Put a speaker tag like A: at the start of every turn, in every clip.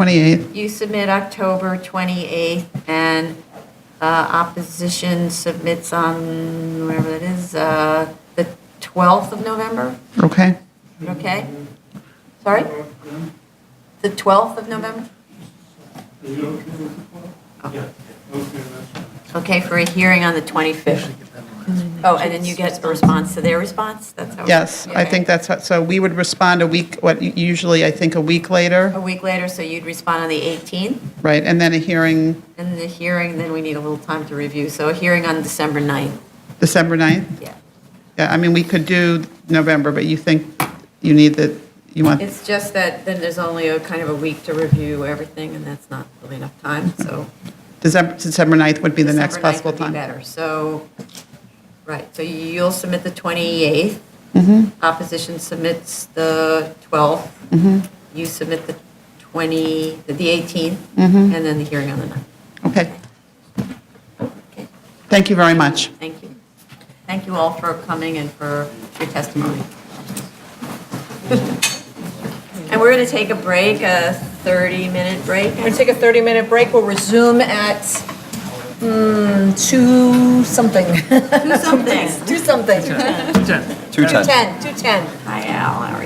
A: 28th.
B: You submit October 28th, and uh, opposition submits on, whatever that is, uh, the 12th of November,
A: Okay.
B: okay? Sorry? The 12th of November? Okay, for a hearing on the 25th. Oh, and then you get a response to their response? That's how.
A: Yes, I think that's, how- so we would respond a week, what, usually, I think, a week later,
B: A week later, so you'd respond on the 18th,
A: right? And then a hearing
B: and the hearing, then we need a little time to review. So a hearing on December 9th,
A: December 9th?
B: yeah.
A: Yeah, I mean, we could do November, but you think you need the, you want,
B: It's just that then there's only a kind of a week to review everything, and that's not really enough time, so.
A: December, December 9th would be the next
B: December ninth
A: possible
B: would be
A: time.
B: better, so, right, so you'll submit the 28th.
A: Mm-hmm.
B: Opposition submits the 12th.
A: Mm-hmm.
B: You submit the 20, the 18th,
A: Mm-hmm.
B: and then the hearing on the 9th.
A: Okay,
B: Okay,
A: thank you very much.
B: thank you. Thank you all for coming and for your testimony. And we're going to take a break, a 30-minute break.
C: We're going to take a 30-minute break. We'll resume at mm, 2 something.
B: Do something.
C: 2 something. 2:10.
D: Two times.
C: 2:10.
B: Hi Al, how are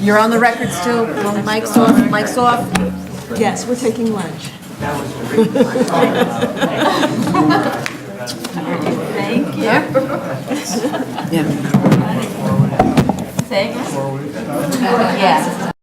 B: you?
C: You're on the record still. Well, Mic's off, mic's off. Yes, we're taking lunch.
B: Thank you. Thanks. Yes.